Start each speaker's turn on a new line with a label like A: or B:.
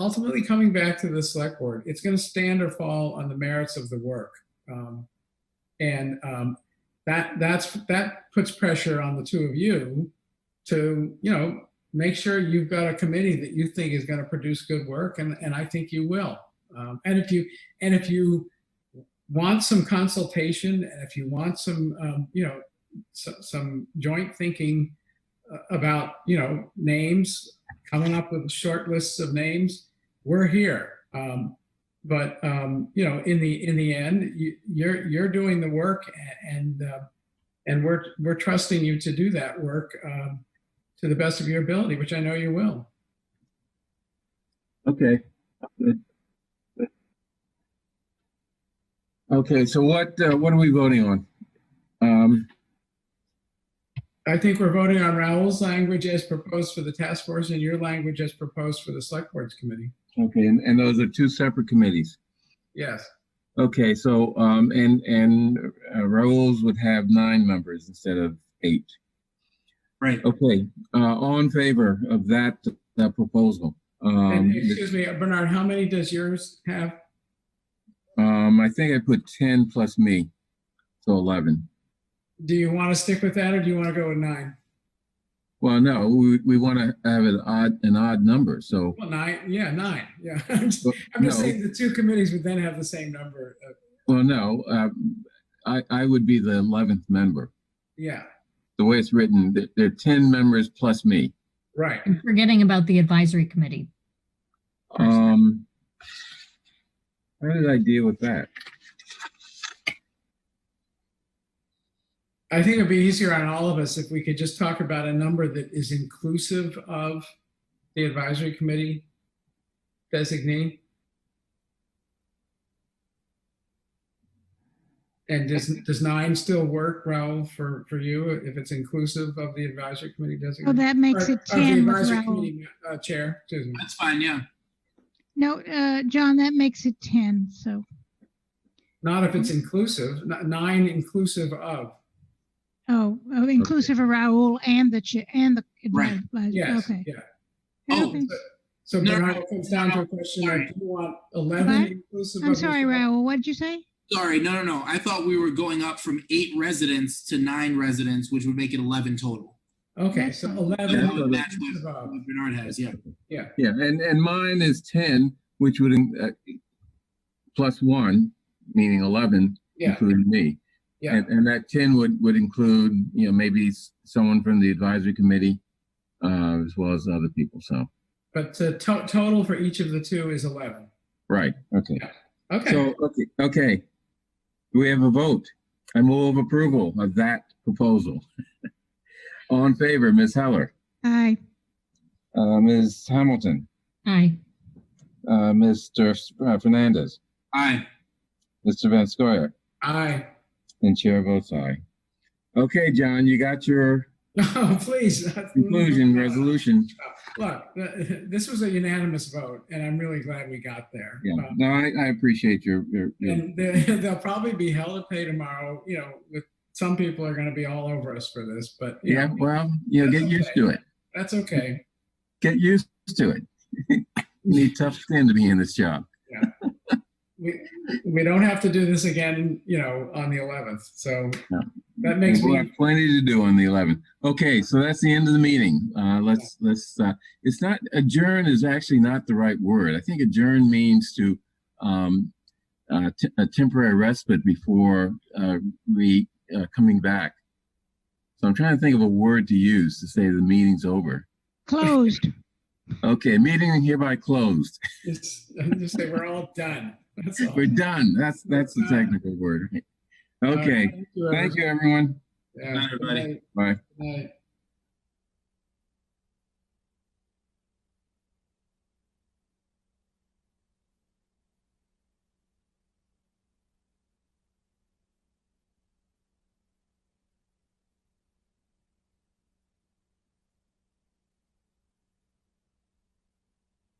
A: ultimately coming back to the select board, it's going to stand or fall on the merits of the work. Um, and um, that that's that puts pressure on the two of you to you know make sure you've got a committee that you think is going to produce good work, and and I think you will. Um, and if you and if you want some consultation, and if you want some um, you know so, some joint thinking uh, about you know names coming up with short lists of names. We're here. Um, but um, you know, in the in the end, you, you're you're doing the work, a- and uh, and we're we're trusting you to do that work um, to the best of your ability, which I know you will.
B: Okay, good. Good. Okay, so what, uh, what are we voting on? Um,
A: I think we're voting on Raoul's language as proposed for the task force and your language as proposed for the select boards committee.
B: okay, and, and those are two separate committees.
A: Yes,
B: Okay, so, um, and, and uh, Raoul's would have nine members instead of eight.
C: Right.
B: Okay, uh, all in favor of that, that proposal? Um,
A: and excuse me, Bernard, how many does yours have?
B: um, I think I put ten plus me, so eleven.
A: Do you want to stick with that, or do you want to go with nine?
B: Well, no, we, we want to have an odd, an odd number, so.
A: Well, nine, yeah, nine, yeah. I'm just
B: Well,
A: I'm just
B: no.
A: saying the two committees would then have the same number. of-
B: Well, no, um, I, I would be the eleventh member.
A: Yeah,
B: The way it's written, th- there are ten members plus me.
A: right.
D: I'm forgetting about the advisory committee.
B: Um, how did I deal with that?
A: I think it'd be easier on all of us if we could just talk about a number that is inclusive of the advisory committee designee. And does, does nine still work, Raul, for, for you, if it's inclusive of the advisory committee
E: Oh,
A: designee?
E: that makes
A: Or-
E: it
A: of the
E: 10 with
A: advisory
E: Raoul.
A: committee, uh, Chair, excuse me.
C: That's fine, yeah.
E: No, uh, John, that makes it 10, so.
A: Not if it's inclusive, n- nine inclusive of.
E: Oh, oh, inclusive of Raoul and the, cha- and the.
C: Right.
E: advisor.
A: Yes,
E: Okay.
A: yeah.
C: Oh,
E: Okay.
A: So
C: No,
A: Bernard,
C: no,
A: it comes down to a question of,
C: sorry.
A: do you want 11
E: What?
A: inclusive?
E: I'm
A: of the-
E: sorry, Raoul, what did you say?
C: Sorry, no, no, no. I thought we were going up from eight residents to nine residents, which would make it eleven total.
A: Okay, so
E: That's
A: 11
C: That would match
A: inclusive
C: what
A: of.
C: what Bernard has, yeah.
B: Yeah, and, and mine is ten, which would, uh, plus one, meaning eleven,
A: Yeah,
B: including me.
A: yeah,
B: And, and that ten would, would include, you know, maybe s- someone from the advisory committee, uh, as well as other people, so,
A: but the to- total for each of the two is 11.
B: right, okay.
A: Okay,
B: So, okay, okay. Do we have a vote? I move approval of that proposal. All in favor, Ms. Heller,
E: Aye,
B: uh, Ms. Hamilton,
D: Aye.
B: uh, Mr. S- uh, Fernandez,
C: Aye,
B: Mr. Vanskoya,
A: aye.
B: and chair votes aye. Okay, John, you got your
A: No, oh, please.
B: conclusion resolution.
A: Look, th- this was a unanimous vote, and I'm really glad we got there.
B: Yeah,
A: Um,
B: no, I, I appreciate your, your, your,
A: And they- they'll probably be held to pay tomorrow, you know, with, some people are going to be all over us for this, but. you
B: yeah,
A: know,
B: well, you know, get used to it.
A: That's okay.
B: Get used to it. You Need tough skin to be in this job.
A: We, we don't have to do this again, you know, on the 11th, so
B: No.
A: that makes
B: We'll
A: me,
B: have Plenty to do on the eleventh. Okay, so that's the end of the meeting. Uh, let's, let's, uh, it's not, adjourn is actually not the right word. I think adjourn means to, um, uh, t- a temporary respite before, uh, re, uh, coming back. So I'm trying to think of a word to use to say the meeting's over.
E: closed.
B: Okay, meeting hereby closed.
A: just, just say we're all done. That's all.
B: We're done. That's, that's the technical word.
A: All right,
B: Okay,
A: thank you,
B: thank you, everyone.
A: everyone.
C: Bye, everybody.
A: Yeah, good night,
B: Bye.
A: good night.